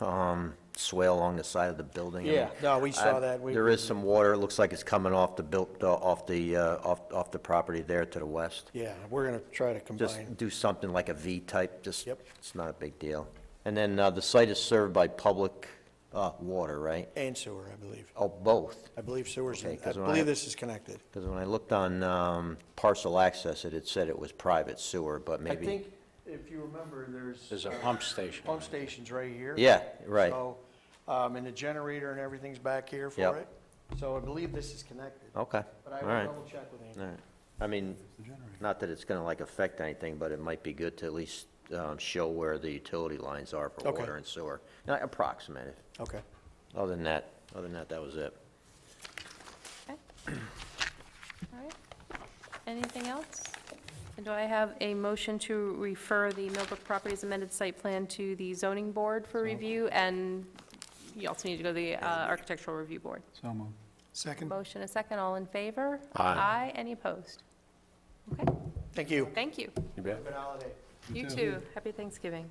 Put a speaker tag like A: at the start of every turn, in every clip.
A: um, swale along the side of the building. I
B: Yeah,
A: mean,
B: no, we saw
A: I-
B: that. We-
A: There is some water, it looks like it's coming off the built, uh, off the, uh, off, off the property there to the west.
B: Yeah, we're gonna try to combine.
A: Just do something like a V type, just,
B: Yep.
A: it's not a big deal. And then uh, the site is served by public uh, water, right?
B: And sewer, I believe.
A: Oh, both,
B: I believe sewer's,
A: Okay,
B: in- I
A: 'cause when I-
B: believe this is connected.
A: because when I looked on um, parcel access, it had said it was private sewer, but
B: I
A: maybe.
B: think, if you remember, there's.
C: There's a pump station.
B: Pump station's right here.
A: Yeah, right.
B: So, um, and the generator and everything's back here for
A: Yep.
B: it. So I believe this is connected.
A: Okay,
B: But I
A: all
B: will
A: right.
B: double check with Andy.
A: All right. I mean, not that it's gonna like affect anything, but it might be good to at least, um, show where the utility lines are for
B: Okay.
A: water and sewer. Not approximate it.
B: Okay.
A: Other than that, other than that, that was it.
D: All right. Anything else? And do I have a motion to refer the Millbrook Properties amended site plan to the zoning board for review? And you also need to go to the uh, architectural review board.
C: So moved.
B: Second.
D: Motion a second, all in favor?
C: Aye.
D: Aye, any opposed? Okay,
B: Thank you.
D: thank you.
C: You bet.
B: Have a good holiday.
D: You too. Happy Thanksgiving.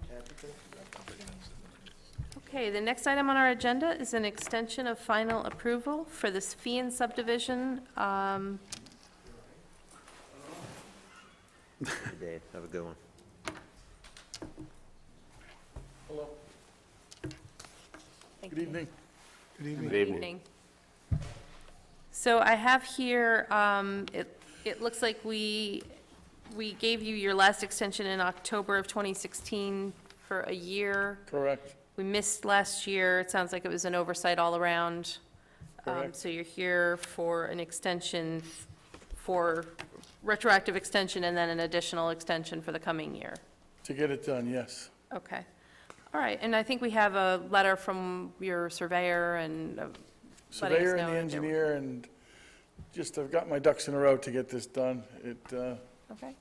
D: Okay, the next item on our agenda is an extension of final approval for this fee subdivision. Um,
A: Dave, have a good one.
D: Thank you.
C: Good
D: Good
C: evening.
D: evening. So I have here, um, it, it looks like we, we gave you your last extension in October of 2016 for a year.
E: Correct.
D: We missed last year. It sounds like it was an oversight all around. Um,
E: Correct.
D: So you're here for an extension, for retroactive extension and then an additional extension for the coming year.
E: To get it done, yes.
D: Okay. All right, and I think we have a letter from your surveyor and uh, letting us
E: Surveyor
D: know that
E: and the
D: there were-
E: engineer and just, I've got my ducks in a row to get this done. It uh,
D: Okay.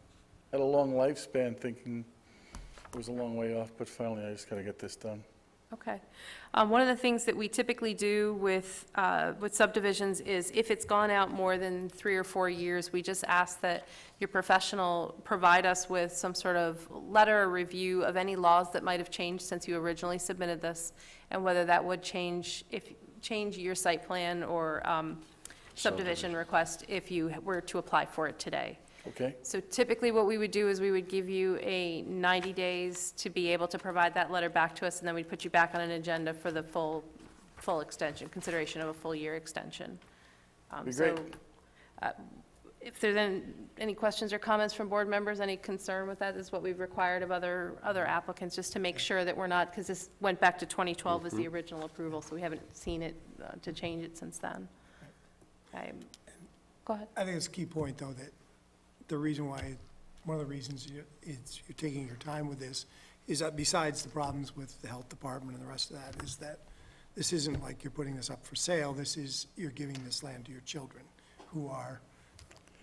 E: had a long lifespan thinking it was a long way off, but finally I just got to get this done.
D: Okay. Um, One of the things that we typically do with, uh, with subdivisions is if it's gone out more than three or four years, we just ask that your professional provide us with some sort of letter or review of any laws that might have changed since you originally submitted this, and whether that would change, if, change your site plan or um, subdivision request if you were to apply for it today.
E: Okay?
D: So typically, what we would do is we would give you a 90 days to be able to provide that letter back to us, and then we'd put you back on an agenda for the full, full extension, consideration of a full-year extension. Um,
E: Be great.
D: So uh, if there's an- any questions or comments from board members, any concern with that, is what we've required of other, other applicants, just to make sure that we're not, because this went back to 2012 as the
E: Mm-hmm.
D: original approval, so we haven't seen it, uh, to change it since then. Okay. Go ahead.
F: I think it's a key point, though, that the reason why, one of the reasons you- it's, you're taking your time with this is that besides the problems with the health department and the rest of that, is that this isn't like you're putting this up for sale, this is, you're giving this land to your children, who are,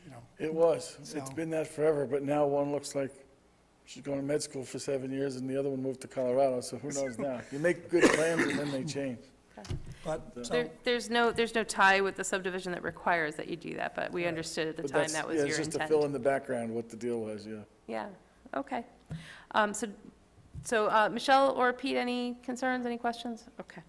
F: you know,
E: It was. It's
F: So-
E: been that forever, but now one looks like she's going to med school for seven years and the other one moved to Colorado, so who knows now? You make good plans and then they change.
F: but, so,
D: There, there's no, there's no tie with the subdivision that requires that you do that, but we understood at the
E: But
D: time
E: that's-
D: that
E: yeah,
D: was your
E: It's just to fill
D: intent.
E: in the background what the deal was, yeah.
D: Yeah, okay. Um, so, so, uh, Michelle or Pete, any concerns, any questions? Okay.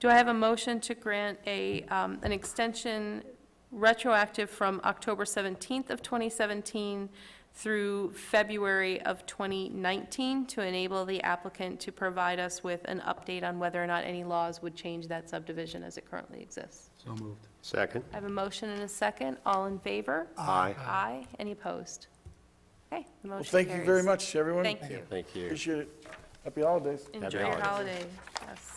D: Do I have a motion to grant a, um, an extension retroactive from October seventeenth of twenty seventeen through February of twenty nineteen to enable the applicant to provide us with an update on whether or not any laws would change that subdivision as it currently exists?
C: So moved.
G: Second.
D: I have a motion and a second. All in favor?
G: Aye.
D: Aye. Any opposed? Okay, the
E: Well,
D: motion carries.
E: thank you very much, everyone.
D: Thank you.
G: Thank you.
E: Appreciate it. Happy holidays.
D: Enjoy
G: Happy
D: your holiday,
G: holidays.
D: yes.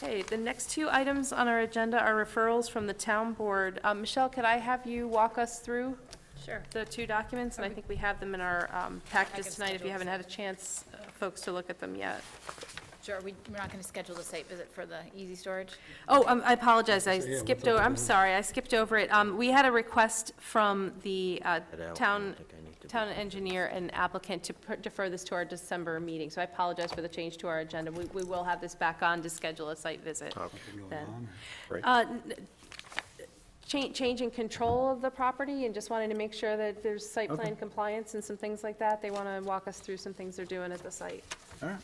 D: Okay, the next two items on our agenda are referrals from the town board. Um, Michelle, could I have you walk us through
H: Sure.
D: the two documents? And I think we have them in our um, packages
H: Packets
D: tonight, if you
H: schedules.
D: haven't had a chance, uh, folks, to look at them yet.
H: Sure, we, we're not going to schedule the site visit for the easy storage?
D: Oh, um, I apologize, I skipped over, I'm sorry, I skipped over it. Um, We had a request from the uh,
A: Get out, I
D: town,
A: don't think I need to be-
D: town engineer and applicant to per- defer this to our December meeting, so I apologize for the change to our agenda. We, we will have this back on to schedule a site visit then.
G: Great.
D: Uh, n- cha- Change in control of the property, and just wanted to make sure that there's site plan compliance and some things like that. They want to walk us through some things they're doing at the site.
C: All right.